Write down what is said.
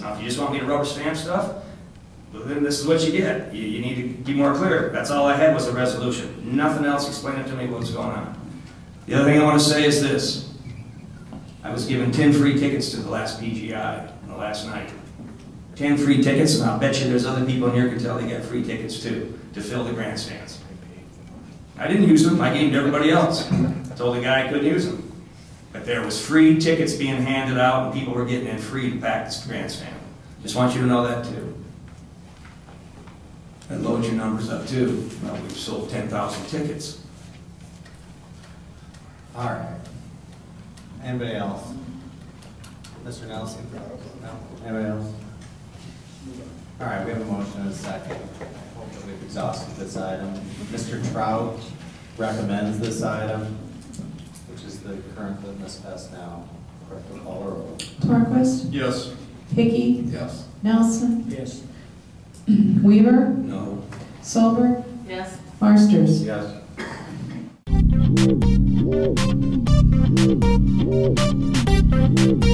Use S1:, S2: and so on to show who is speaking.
S1: Now, if you just want me to rubber stamp stuff, well, then this is what you get. You, you need to be more clear. That's all I had was a resolution. Nothing else. Explain it to me what's going on. The other thing I want to say is this. I was given 10 free tickets to the last PGI, the last night. 10 free tickets, and I'll bet you there's other people in here can tell they got free tickets too, to fill the grandstands. I didn't use them, I gave them to everybody else. Told the guy I couldn't use them. But there was free tickets being handed out, and people were getting in free to pack this grandstand. Just want you to know that too. And load your numbers up too. Well, we've sold 10,000 tickets.
S2: All right. Anybody else? Mr. Nelson? No? Anybody else? All right, we have a motion and a second. Hopefully we've exhausted this item. Mr. Trout recommends this item, which is the current litmus test now. Clerk will call the roll.
S3: Torquist?
S4: Yes.
S3: Hickey?
S4: Yes.
S3: Nelson?
S4: Yes.
S3: Weaver?
S1: No.
S3: Solberg?
S5: Yes.
S3: Marsters?
S2: Yes.
S6: Whoa, whoa, whoa, whoa, whoa.